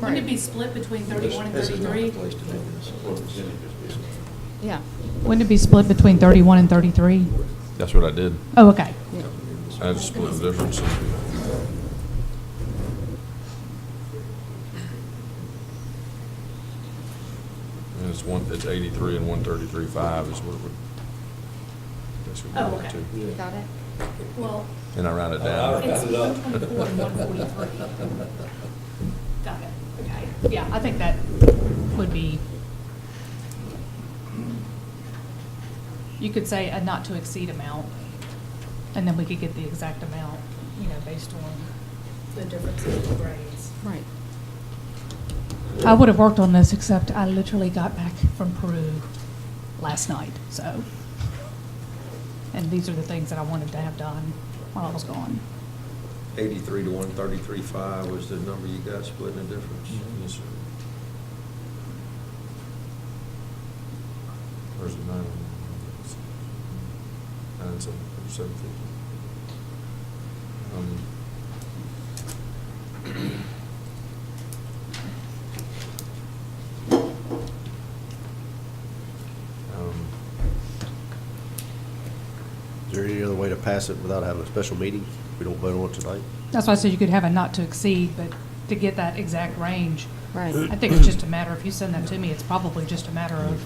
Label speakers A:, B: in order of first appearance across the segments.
A: Wouldn't it be split between thirty-one and
B: This is not
A: thirty-three?
B: the place to do this.
A: Yeah. Wouldn't it be split between thirty-one and thirty-three?
C: That's what I did.
A: Oh, okay.
C: I just split the difference. And it's one, it's eighty-three and one thirty-three five is what it would. that's what it
A: Oh,
C: would
A: okay.
C: to.
D: You got it?
A: Well,
C: And I rounded
B: Oh, I- I
C: down.
B: rounded
A: it's
B: it up.
A: one twenty-four and one forty-three. Got it, okay. Yeah, I think that would be, you could say a not to exceed amount, and then we could get the exact amount, you know, based on the differences in grades.
D: Right.
A: I would have worked on this, except I literally got back from Peru last night, so. And these are the things that I wanted to have done while I was gone.
B: Eighty-three to one thirty-three five was the number you got split in the difference.
C: Yes, sir. Where's the nine? Nine seven, seven fifty. Um, um,
E: Is there any other way to pass it without having a special meeting? We don't vote on it tonight?
A: That's why I said you could have a not to exceed, but to get that exact range.
D: Right.
A: I think it's just a matter, if you send that to me, it's probably just a matter of,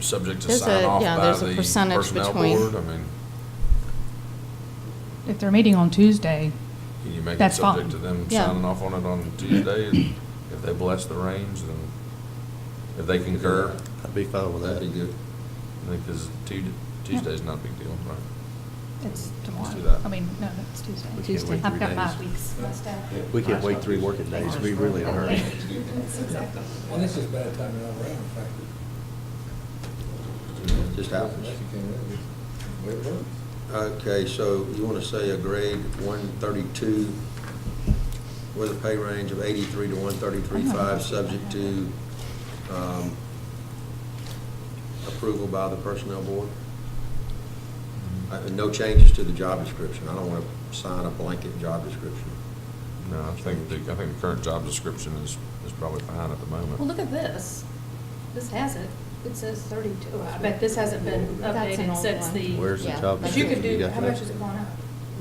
C: Subject to
D: There's
C: sign
D: a-
C: off
D: yeah,
C: by
D: there's a
C: the
D: percentage
C: personnel
D: between-
C: board, I mean,
A: if they're meeting on Tuesday,
C: can you make it
A: That's
C: subject
A: fine.
C: to them
D: Yeah.
C: signing off on it on Tuesday? And If they bless the range, then if they concur,
E: I'd be fine with that.
B: That'd be good.
C: I think this is Tu- Tuesday's not a big deal, right?
A: it's
C: do
A: tomorrow.
C: that.
A: I mean, no, it's Tuesday.
E: We can't
D: Tuesday.
E: wait
A: I've
E: three
A: got my
E: days.
A: weeks, my stuff.
E: We can't wait three working days, we really in a hurry.
F: Well, this is better timing all around, in fact.
B: Just happens.
F: Way it works.
B: Okay, so you want to say a grade one thirty-two with a pay range of eighty-three to one thirty-three five, subject to, um, approval by the personnel board? Uh, No changes to the job description. I don't want to sign a blanket job description.
C: No, I think, the I think the current job description is, is probably fine at the moment.
G: Well, look at this. This has it. It says thirty-two. I bet this hasn't been
D: That's an
G: updated
D: old
G: since
D: one.
G: the.
E: Where's the
D: Yeah.
E: job
G: But you could
E: description?
G: do,
E: got
G: how
E: that?
G: much has it gone up?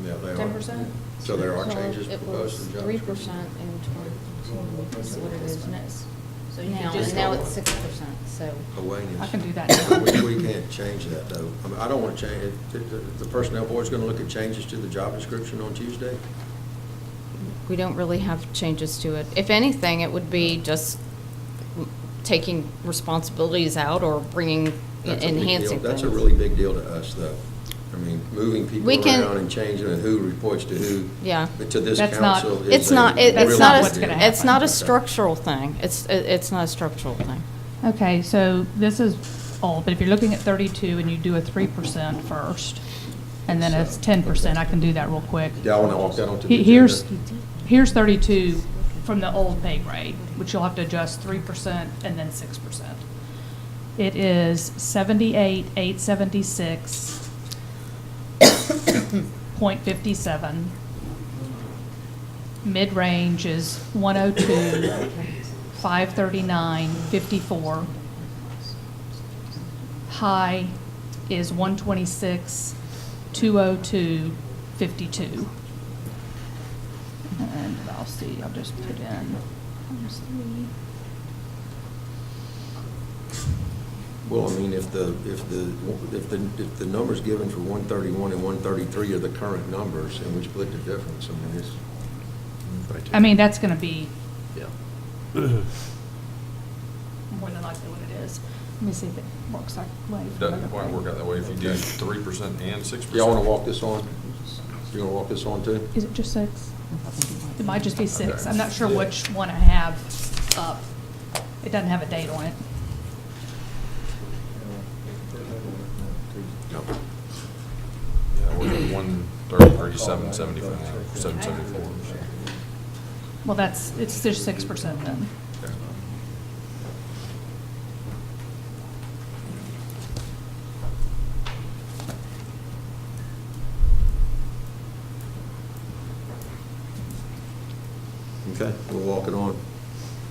B: Yeah, they are.
G: Ten percent?
B: So there are
D: So
B: changes proposed in the job
D: It was three
B: description.
D: percent in twenty,
G: That's what it is now. So you
D: now,
G: could
D: and
G: just.
D: now it's six percent, so.
B: Hellenius.
A: I can do that.
B: We we can't change that, though. I mean, I don't want to change, it. The- the- the personnel board's going to look at changes to the job description on Tuesday?
D: We don't really have changes to it. If anything, it would be just m- taking responsibilities out or bringing,
B: That's a big deal.
D: enhancing things.
B: That's a really big deal to us, though. I mean, moving people
D: We can-
B: around and changing who reports to who.
D: Yeah.
B: But to this
A: That's not-
B: council is
D: It's
B: a
D: not, it-
A: That's
D: it's
B: really
A: not
D: not,
A: what's
B: big
A: gonna
D: a-
B: deal.
D: it's not a
B: Okay.
D: structural thing. It's, it- it's not a structural thing.
A: Okay, so this is old, but if you're looking at thirty-two and you do a three percent first, and then it's ten percent, I can do that real quick.
B: Yeah, I want to walk that onto the
A: He-
B: agenda.
A: Here's, here's thirty-two from the old pay grade, which you'll have to adjust three percent and then six percent. It is seventy-eight, eight seventy-six, point fifty-seven. Mid-range is one oh two, five thirty-nine, fifty-four. High is one twenty-six, two oh two, fifty-two. And I'll see, I'll just put in.
B: Well, I mean, if the, if the, if the, if the numbers given for 131 and 133 are the current numbers, and we split the difference, I mean, it's,
E: Right there.
A: I mean, that's gonna be
E: Yeah.
A: more than likely what it is. Let me see if it works that way.
C: Doesn't quite work out that way if you do three percent and six percent.
B: y'all want to walk this on? You want to walk this on, too?
A: Is it just six? It might just be six.
C: Okay.
A: I'm not sure which one I have up. It doesn't have a date on it.
B: No.
C: Yeah, we're at one thirty, thirty-seven, seventy-five, seven seventy-four.
A: Well, that's, it's just six percent then.
B: Okay, we'll walk it on.